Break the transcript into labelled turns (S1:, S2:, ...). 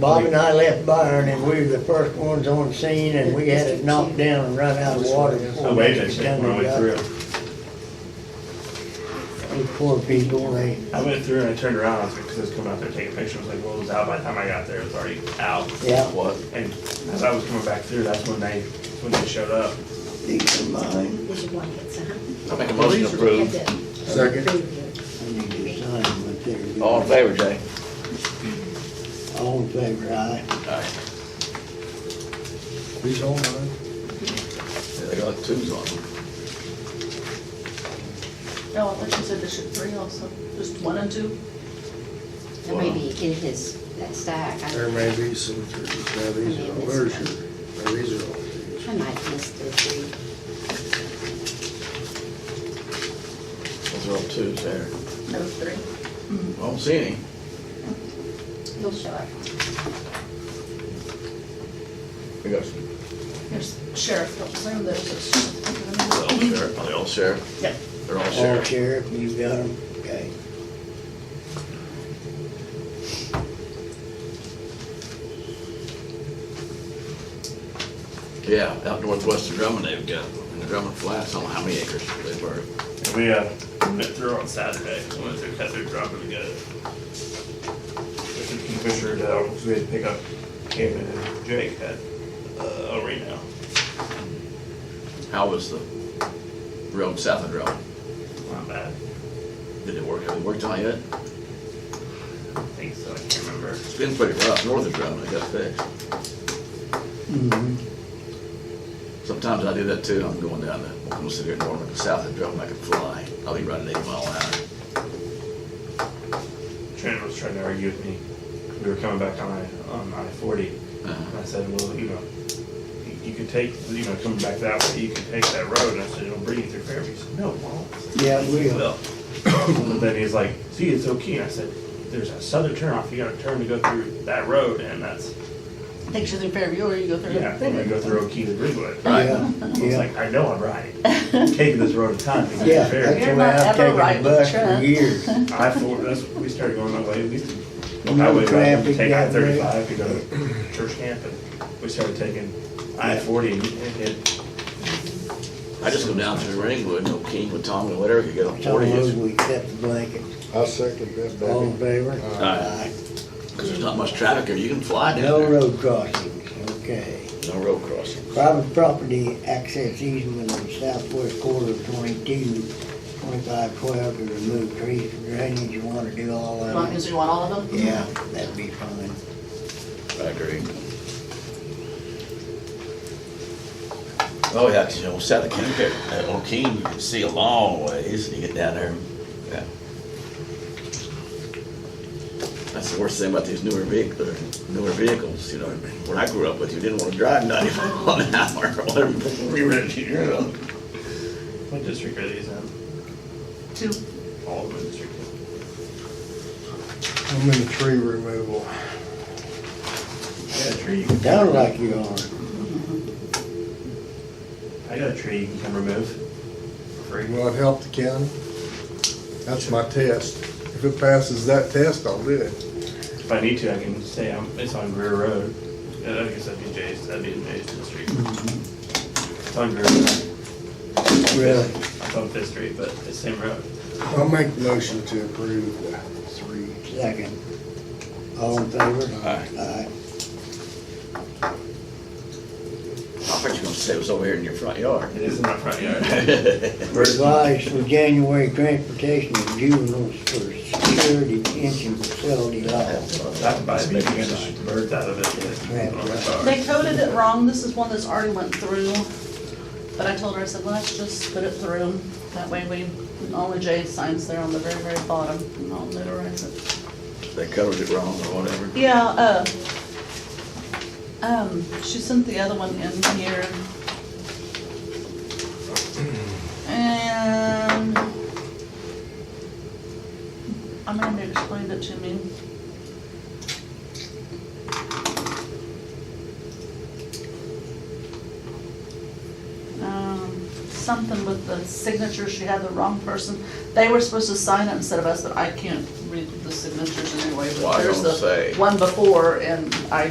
S1: Bob and I left Byron and we were the first ones on scene and we had it knocked down and run out of water. before
S2: I waved that
S1: we
S2: shit
S1: done
S2: when I went
S1: got
S2: through.
S1: Those poor people, they,
S2: I went through and I turned around, I was like, cause I was coming out there taking pictures, I was like, well, it was out by the time I got there, it was already out.
S1: yeah,
S3: What?
S2: And as I was coming back through, that's when they, when they showed up.
S1: these are mine.
S4: Here's your blankets, huh?
S3: I make a motion to
S4: uh-huh. Have
S3: approve.
S4: to
S5: Second.
S4: prove you.
S1: I need to sign them, but they're good.
S3: All in favor, Jay?
S1: All in favor, aye.
S3: Aye.
S5: These all mine.
S3: Yeah, They got twos on them.
S6: No, I thought you said there should three also, just one and two?
S4: Or maybe in his, that stack, I,
S5: There may be some, now these are, all- where's your, now these are all these.
S4: I might miss the three.
S3: Those are all twos there.
S6: No, three.
S3: I don't see any.
S4: He'll show up.
S3: We got some.
S6: There's sheriff, don't assume there's a sheriff.
S3: They're all sheriff. Are they all sheriff?
S6: Yep.
S3: They're all
S1: All
S3: sheriff.
S1: sheriff, you got them, okay.
S3: Yeah, out northwest of Drummond they've got, in the Drummond Flats, I don't know how many acres they were.
S2: And we, uh, went through on Saturday, we went through, cut through, dropped them together. Went through Kingfisher, uh, 'cause we had to pick up Cam and Jake at, uh, El Reno.
S3: How was the road south of Drummond?
S2: Not bad,
S3: Did it work? Have it worked out yet?
S2: I think so, I can't remember.
S3: It's been pretty rough north of Drummond. It got fixed.
S1: Mhm.
S5: Mm-hmm.
S3: Sometimes I do that too. I'm going down the Oklahoma City or north of south of Drummond. I can fly. I'll be running eight mile an hour.
S2: Trent was trying to argue with me. We were coming back on I, on I forty, and
S1: Uh-huh.
S2: I said, well, you know, you- you could take, you know, coming back that way, you could take that road, and I said, it'll bring you through Fairview. He said, no, it won't. I said,
S1: Yeah, we
S2: "It
S1: will.
S2: will." But then he's like, see, it's okay, and I said, there's a southern turnoff, you gotta turn to go through that road, and that's,
S6: Think she's in Fairview or you go through?
S2: yeah, when we go through Okie to Greenwood. I
S3: Right.
S1: Yeah,
S2: was
S1: yeah.
S2: like, I know I'm right, taking this road a time to get
S1: Yeah, that's
S2: to Fairview.
S1: the
S6: You're
S1: way
S6: not
S1: I've
S6: ever
S1: taken
S6: right
S1: the
S6: with
S1: bus for
S6: Trent.
S1: years.
S2: I four, that's, we started going that way, we used to,
S1: No
S2: I would
S1: traffic
S2: take I
S1: that way.
S2: thirty-five to go to church camp, and we started taking I forty, and it,
S3: I just go down through Ringwood, no King, with Tommy, whatever, you get on
S1: Some of
S3: forty,
S1: those
S3: it's-
S1: we kept the blanket,
S5: I second that,
S1: all in
S5: baby.
S1: favor?
S3: Aye. cause there's not much traffic here, you can fly down
S1: No
S3: there.
S1: road crossings, okay.
S3: No road crossing.
S1: Private property access easement on southwest quarter of 22, 2512 to remove trees from drainage, you wanna do all
S6: As
S1: of
S6: long
S1: it?
S6: as you want all of them?
S1: Yeah, that'd be fine.
S3: I agree. Oh, yeah, 'cause, you know, south of King, there- uh, on King, you can see a long ways, you get down there, yeah. That's the worst thing about these newer vehicles, newer vehicles, you know, when I grew up with, you didn't wanna drive ninety mile an hour, whatever, we were, you know.
S2: what district are these in?
S6: Two.
S2: All of them district.
S5: I'm in the tree removal.
S2: I got a tree, you can-
S1: Sounds like you are.
S2: I got a tree you can come remove for free.
S5: Will it help the county? That's my test. If it passes that test, I'll do it.
S2: If I need to, I can say I'm, it's on Greer Road, Uh, I guess that'd be Jay's, that'd be in Jay's district. It's on Greer Road,
S1: Really?
S2: it's on Fifth Street, but it's the same road.
S5: I'll make the motion to approve the three.
S1: Second. All in favor?
S3: Aye.
S1: Aye.
S3: I thought you were gonna say it was over here in your front yard.
S2: It is in my front yard.
S1: Advice for January transportation of juveniles for security detention facility law.
S2: I can buy a big, you the birds out of it, but on my car.
S6: They coded it wrong, this is one that's already went through, but I told her, I said, let's just put it through. That way we, only Jay signs there on the very, very bottom, and I'll notarize it.
S3: They covered it wrong or whatever.
S6: Yeah, uh, um, she sent the other one in here. And Amanda explained it to me. Um, Something with the signature, she had the wrong person. They were supposed to sign it instead of us, but I can't read the the signatures anyway,
S3: Well, I
S6: but
S3: was
S6: there's
S3: gonna say.
S6: the one before, and I